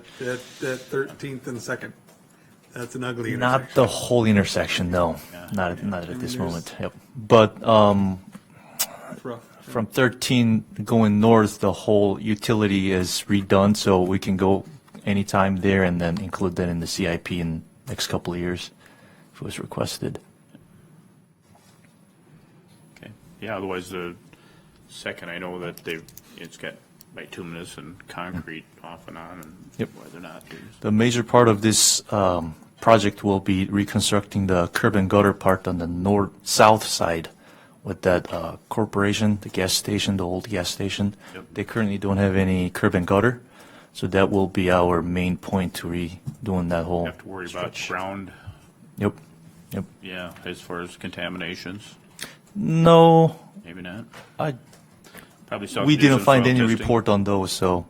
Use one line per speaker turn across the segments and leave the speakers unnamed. That, that, that 13th and 2nd. That's an ugly intersection.
Not the whole intersection, no. Not, at- not at this moment, yep. But um,
It's rough.
from 13 going north, the whole utility is redone, so we can go anytime there and then include that in the CIP in next couple of years if it was requested.
Okay, yeah, otherwise the second, I know that they've, it's got bituminous and concrete off and on and
Yep.
whether or not there's.
The major part of this um, project will be reconstructing the curb and gutter part on the north, south side with that uh, corporation, the gas station, the old gas station.
Yep.
They currently don't have any curb and gutter, so that will be our main point to redoing that whole.
You have to worry about
stretch.
ground,
Yep, yep.
yeah, as far as contaminations,
No,
maybe not.
I,
Probably
we didn't
self-nuisance
find
well
any
testing.
report on those, so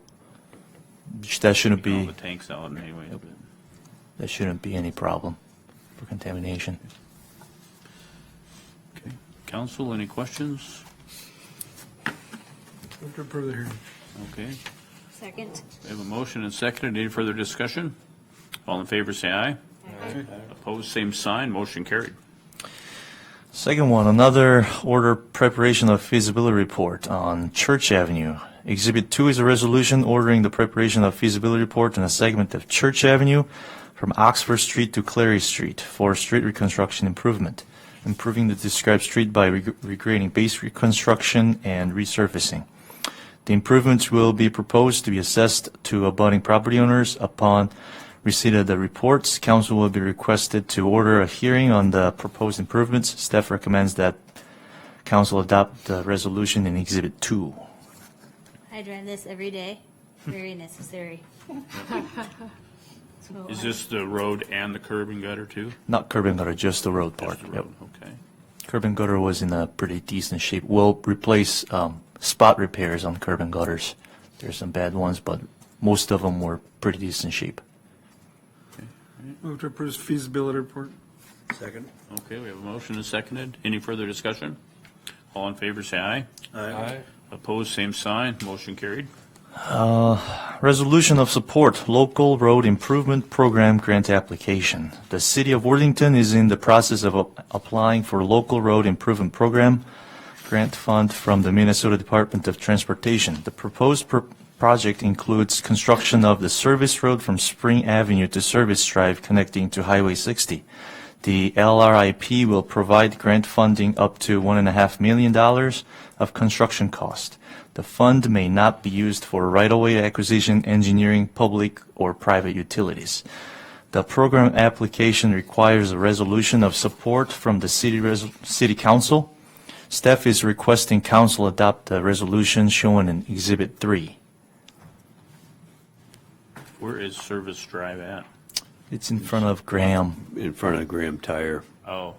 sh- that shouldn't
All
be,
the tanks out anyway. but-
that shouldn't be any problem for contamination.
okay. Council, any questions?
Move to approve the hearing.
Okay,
Second.
we have a motion and seconded. Any further discussion? All in favor, say aye. Opposed, same sign. Motion carried.
Second one, another order preparation of feasibility report on Church Avenue. Exhibit two is a resolution ordering the preparation of feasibility report on a segment of Church Avenue from Oxford Street to Clary Street for street reconstruction improvement, improving the described street by reg- regrading base reconstruction and resurfacing. The improvements will be proposed to be assessed to abutting property owners upon receipt of the reports. Council will be requested to order a hearing on the proposed improvements. Staff recommends that council adopt the resolution in Exhibit 2.
I drive this every day. Very necessary. So
Is
I-
this the road and the curb and gutter too?
Not curb and gutter, just the road part.
Just the
Yep.
road, okay.
Curb and gutter was in a pretty decent shape. We'll replace um, spot repairs on curb and gutters. There's some bad ones, but most of them were pretty decent shape.
Move to approve feasibility report.
Second.
Okay, we have a motion and seconded. Any further discussion? All in favor, say aye.
Aye.
Opposed, same sign. Motion carried.
Resolution of support local road improvement program grant application. The city of Worthington is in the process of a- applying for local road improvement program grant fund from the Minnesota Department of Transportation. The proposed pr- project includes construction of the service road from Spring Avenue to Service Drive connecting to Highway 60. The LRIP will provide grant funding up to $1.5 million of construction cost. The fund may not be used for right-of-way acquisition, engineering, public, or private utilities. The program application requires a resolution of support from the city, res- city council. Staff is requesting council adopt the resolution shown in Exhibit 3.
Where is Service Drive at?
It's in front of Graham.
In front of Graham Tire.
Oh,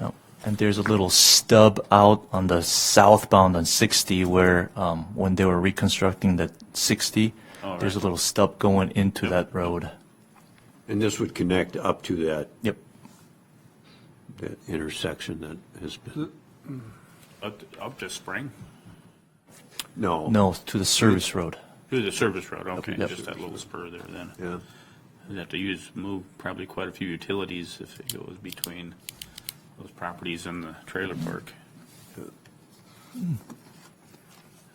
Oh, And there's a little stub out on the southbound on 60 where, um, when they were reconstructing that 60,
All
there's a
Oh, right.
little stub going into that road.
And this would connect up to that,
Yep.
that intersection that has been,
up, up to Spring?
no.
No, to the service road.
To the Service Road, okay,
Yep.
just that little spur there then.
Yeah.
You'd have to use, move probably quite a few utilities if it goes between those properties and the trailer park.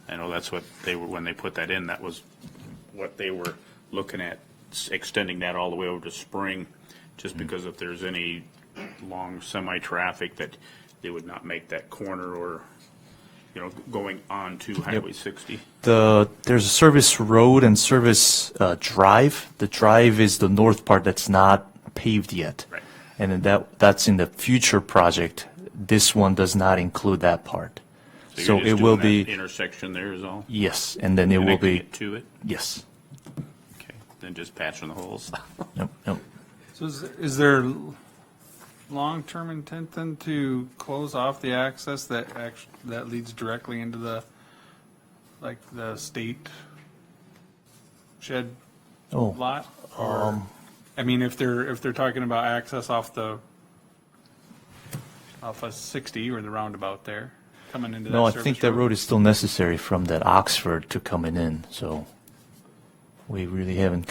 I know that's what they were, when they put that in, that was what they were looking at, s- extending that all the way over to Spring, just
Mm-hmm.
because if there's any long semi-traffic that they would not make that corner or, you know, going on to Highway 60.
The, there's a service road and service, uh, drive. The drive is the north part that's not paved yet.
Right.
And then that, that's in the future project. This one does not include that part.
you're
So
just
it
doing
will
that
be,
Intersection there is all.
yes, and then it will
Connecting
be,
it To it.
yes.
Okay, then just patching the holes.
Yep, yep.
So is, is there long-term intent then to close off the access that act, that leads directly into the, like, the state shed
Oh.
lot? Or,
Um,
I mean, if they're, if they're talking about access off the, off of 60 or the roundabout there, coming into that
No, I
service
think that road is still necessary from that Oxford to coming in, so we really haven't